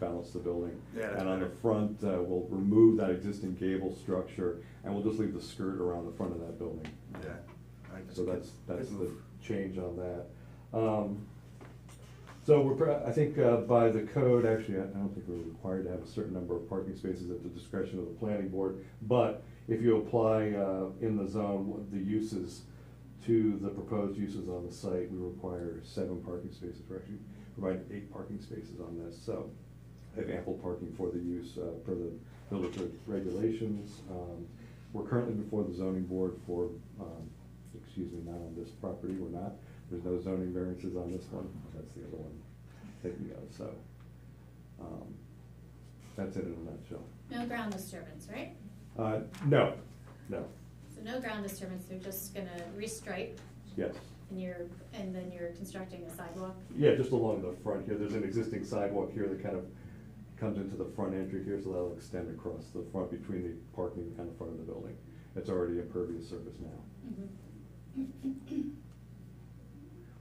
balance the building. Yeah, that's And on the better. front, uh, we'll remove that existing gable structure, and we'll just leave the skirt around the front of that building. Yeah. I just- So that's, that's good the move. change on that. Um, So we're, pro- I think uh, by the code, actually, I I don't think we're required to have a certain number of parking spaces at the discretion of the planning board. But if you apply uh, in the zone, what the uses to the proposed uses on the site, we require seven parking spaces. We're actually providing eight parking spaces on this, so have ample parking for the use uh, per the village reg- regulations. Um, We're currently before the zoning board for, um, excuse me, not on this property, we're not. There's no zoning variances on this one, that's the other one taking go, so. um, That's it in a nutshell. No ground disturbance, right? Uh, No, no, So no ground disturbance, they're just gonna restripe yes. and you're, and then you're constructing a sidewalk? Yeah, just along the front here, there's an existing sidewalk here that kind of comes into the front entry here, so that'll extend across the front between the parking and the front of the building. It's already impervious surface now. Mhm.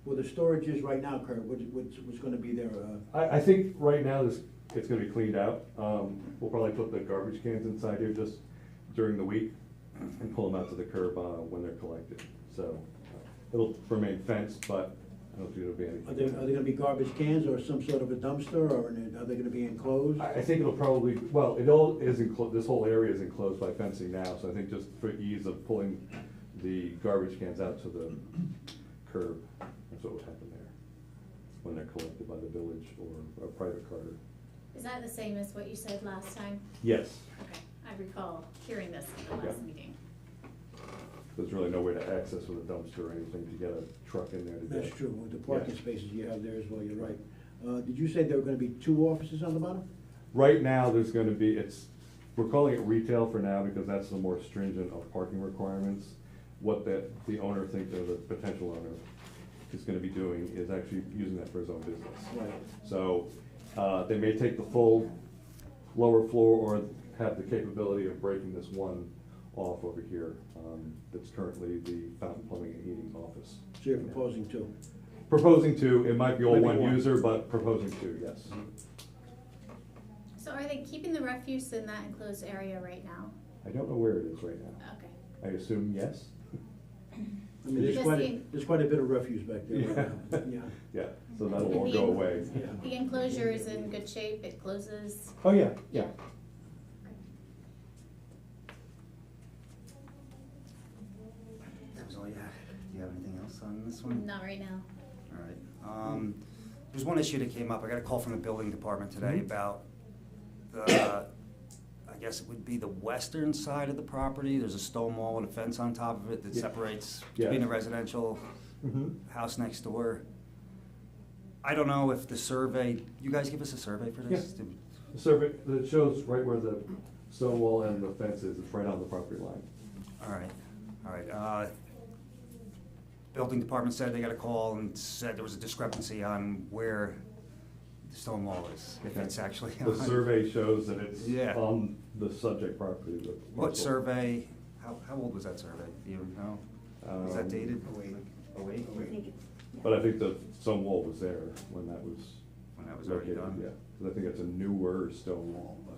Well, the storage is right now, Kurt, what's, what's, what's gonna be there, uh, I, I think right now this, it's gonna be cleaned out. Um, we'll probably put the garbage cans inside here just during the week and pull them out to the curb, uh, when they're collected. So uh, it'll remain fenced, but I don't think it'll be anything. are there, are there gonna be garbage cans or some sort of a dumpster, or in a- are they gonna be enclosed? I, I think it'll probably, well, it all is enclosed, this whole area is enclosed by fencing now, so I think just for ease of pulling the garbage cans out to the curb, that's what would happen there, when they're collected by the village or a private carter. Is that the same as what you said last time? Yes, Okay, I recall hearing this in the last Yeah. meeting. there's really no way to access with a dumpster or anything to get a truck in there to get. That's true, with the parking Yeah. spaces you have there as well, you're right. Uh, did you say there were gonna be two offices on the bottom? Right now, there's gonna be, it's, we're calling it retail for now because that's the more stringent of parking requirements. What that, the owner thinks, or the potential owner is gonna be doing is actually using that for his own business. Right. So, uh, they may take the full lower floor or have the capability of breaking this one off over here. um, That's currently the fountain plumbing and heating office. So you're proposing two? Proposing to, it might be all Maybe one one. user, but proposing to, yes. So are they keeping the refuse in that enclosed area right now? I don't know where it is right now. Okay. I assume yes? I mean, there's Just quite, the- a- there's quite a bit of refuse back there right now, Yeah. yeah. Yeah, so that'll all go away. Yeah. The enclosure is in good shape, it closes? Oh, yeah, yeah. That was all you had. Do you have anything else on this one? Not right now. All right. Um, there's one issue that came up. I got a call from the building department today Mhm. about the, I guess it would be the western side of the property. There's a stone wall and a fence on top of it that Yeah. separates Yeah. between the residential Mhm. house next door. I don't know if the survey, you guys give us a survey for this? Yeah. Did- The survey, that shows right where the stone wall and the fence is, it's right on the property line. All right, all right. uh, Building department said they got a call and said there was a discrepancy on where the stone wall is, if it's actually. The on- survey shows that it's Yeah. on the subject property, the What parcel. survey, how, how old was that survey? Do you know? Was Um, that dated? Oh, wait. Oh, wait? I think it- But I think the stone wall was there when that was. When that was already located, done? Yeah, 'Cause I think it's a newer stone wall, but,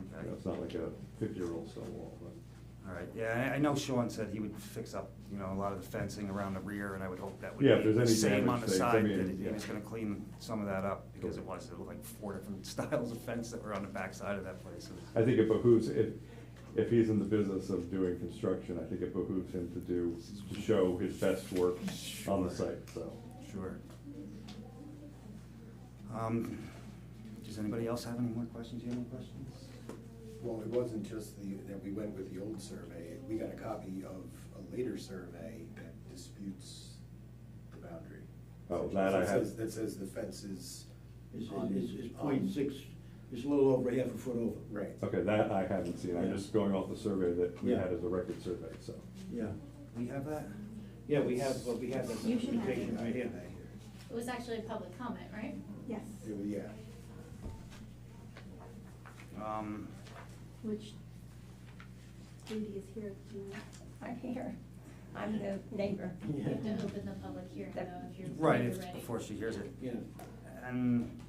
you Okay, know, it's not like a fifty-year-old stone wall, but. all right. Yeah, I, I know Sean said he would fix up, you know, a lot of the fencing around the rear, and I would hope that would Yeah, if be there's any the same damage on the things, I side, mean, that he yeah. was gonna clean some of that up, because it Correct. was, there were like four different styles of fence that were on the backside of that place. It was- I think it behooves, if, if he's in the business of doing construction, I think it behooves him to do, to show his best work on the Sure. site, so. Sure. Um, Does anybody else have any more questions? You have any questions? Well, it wasn't just the, that we went with the old survey, we got a copy of a later survey that disputes the boundary. Oh, that I have- That says- That says the fence is It's, on. it's, it's on- point six, it's a little over half a foot over. Right. Okay, that I haven't seen, I'm just going off the survey that we Yeah. had as a record survey, so. Yeah, We have that? yeah, we have, uh, we have that You should have it. documentation right here. It was actually a public comment, right? Yes, It was- Yeah, Um, which Judy is here, Judy. I'm here. I'm the neighbor. Yeah. You have to open the public hearing though if you're. Right, if it's you're ready. before she hears it. Yeah. And